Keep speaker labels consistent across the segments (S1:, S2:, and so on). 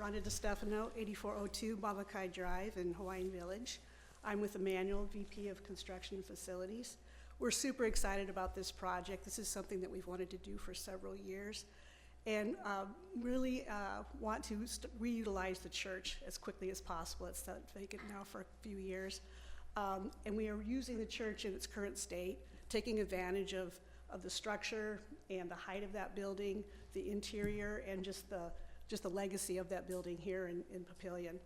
S1: Rhonda DiStefano, 8402 Bavakai Drive in Hawaiian Village. I'm with Emmanuel, VP of Construction and Facilities. We're super excited about this project. This is something that we've wanted to do for several years and uh, really uh, want to st- reutilize the church as quickly as possible. It's been vacant now for a few years. Um, And we are using the church in its current state, taking advantage of, of the structure and the height of that building, the interior, and just the, just the legacy of that building here in, in Papillion.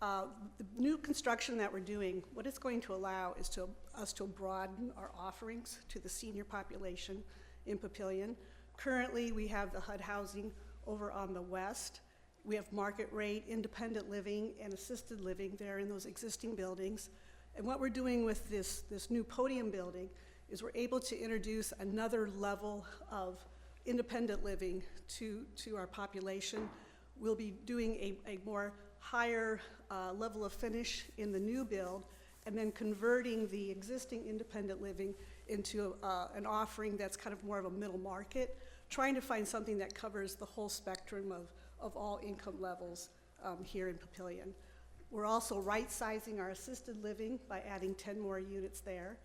S1: Uh, The new construction that we're doing, what it's going to allow is to, us to broaden our offerings to the senior population in Papillion. Currently, we have the HUD housing over on the west. We have market rate, independent living, and assisted living there in those existing buildings. And what we're doing with this, this new podium building is we're able to introduce another level of independent living to, to our population. We'll be doing a, a more higher uh, level of finish in the new build, and then converting the existing independent living into uh, an offering that's kind of more of a middle market, trying to find something that covers the whole spectrum of, of all income levels um, here in Papillion. We're also right-sizing our assisted living by adding 10 more units there.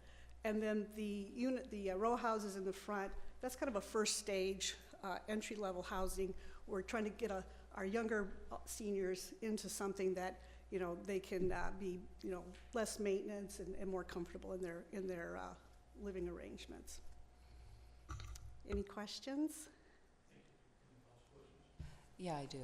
S1: And then the unit, the uh, row houses in the front, that's kind of a first stage, uh, entry-level housing. We're trying to get a- our younger uh, seniors into something that, you know, they can uh, be, you know, less maintenance and and more comfortable in their, in their uh, living arrangements. Any questions?
S2: Yeah, I do.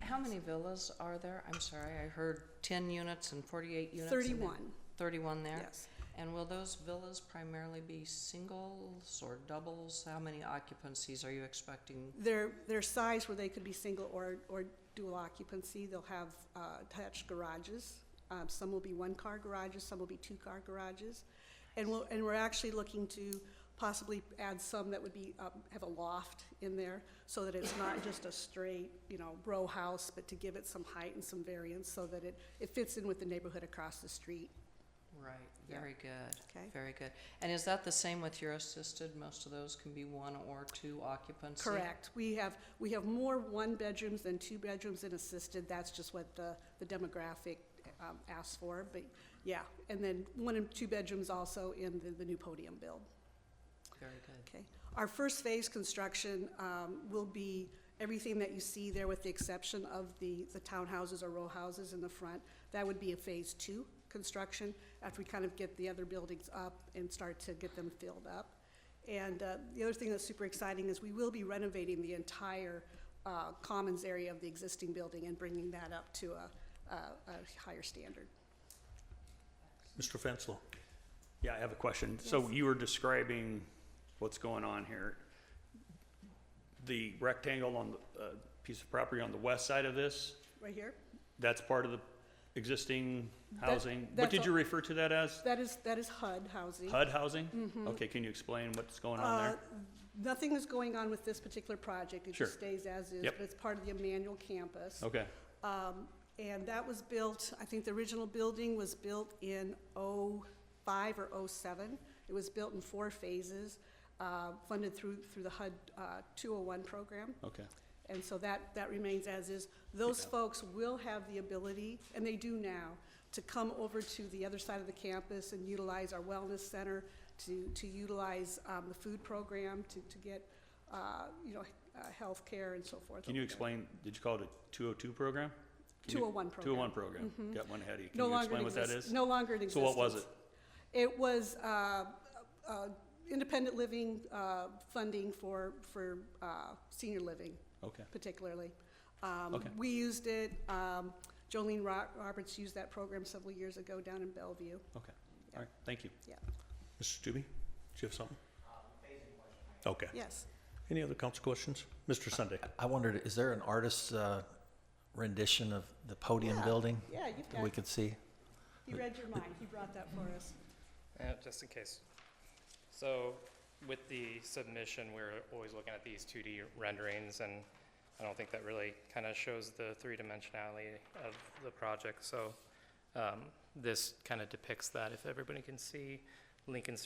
S2: How many villas are there? I'm sorry, I heard 10 units and 48 units. and then-
S1: 31,
S2: 31 there?
S1: yes.
S2: And will those villas primarily be singles or doubles? How many occupancies are you expecting?
S1: Their, their size where they could be single or, or dual occupancy, they'll have uh, attached garages. Um, Some will be one-car garages, some will be two-car garages. And we'll, and we're actually looking to possibly add some that would be, um, have a loft in there so that it's not just a straight, you know, row house, but to give it some height and some variance so that it, it fits in with the neighborhood across the street,
S2: Right,
S1: Yeah.
S2: very good,
S1: okay?
S2: very good. And is that the same with your assisted? Most of those can be one or two occupancy?
S1: Correct. We have, we have more one-bedrooms than two-bedrooms in assisted. That's just what the, the demographic um, asks for, but yeah. And then one and two bedrooms also in the, the new podium build.
S2: Very good.
S1: Okay. Our first phase construction um, will be everything that you see there with the exception of the, the townhouses or row houses in the front. That would be a phase two construction after we kind of get the other buildings up and start to get them filled up. And uh, the other thing that's super exciting is we will be renovating the entire uh, commons area of the existing building and bringing that up to a, a a higher standard.
S3: Mr. Fenslow? Yeah, I have a question. So you were describing what's going on here. The rectangle on the uh, piece of property on the west side of this,
S1: Right here?
S3: that's part of the existing housing? What
S1: that's
S3: did you
S1: all-
S3: refer to that as?
S1: That is, that is HUD housing.
S3: HUD housing? Okay, can you explain what's going on
S1: Mm-hmm. Uh,
S3: there?
S1: Nothing is going on with this particular project. It just
S3: Sure.
S1: stays as is,
S3: Yep.
S1: but it's part of the Emmanuel campus.
S3: Okay,
S1: Um, And that was built, I think the original building was built in '05 or '07. It was built in four phases, uh, funded through, through the HUD uh, 201 program.
S3: okay.
S1: And so that, that remains as is. Those
S3: Yeah.
S1: folks will have the ability, and they do now, to come over to the other side of the campus and utilize our wellness center, to, to utilize um, the food program, to, to get, uh, you know, uh, healthcare and so forth.
S3: Can you
S1: over there.
S3: explain, did you call it a 202 program? Can you-
S1: 201 program. Mm-hmm.
S3: 201 program, got one ahead of you. Can
S1: No
S3: you
S1: longer in
S3: explain what that
S1: exist-
S3: is?
S1: No longer in
S3: So
S1: existence.
S3: what was it?
S1: It was uh, uh, independent living uh, funding for, for uh, senior living.
S3: Okay,
S1: particularly. Um,
S3: Okay.
S1: We used it, um, Jolene Ro- Roberts used that program several years ago down in Bellevue.
S3: okay, all right, thank you.
S1: Yeah.
S4: Mr. Stube, do you have something? Okay.
S1: Yes.
S4: Any other council questions? Mr. Sunday?
S5: I wondered, is there an artist's uh, rendition of the podium
S1: Yeah.
S5: building
S1: Yeah, you've
S5: that we
S1: got,
S5: could see?
S1: he read your mind, he brought that for us.
S6: Uh, just in case. So with the submission, we're always looking at these 2D renderings, and I don't think that really kind of shows the three-dimensionality of the project. So um, this kind of depicts that. If everybody can see Lincoln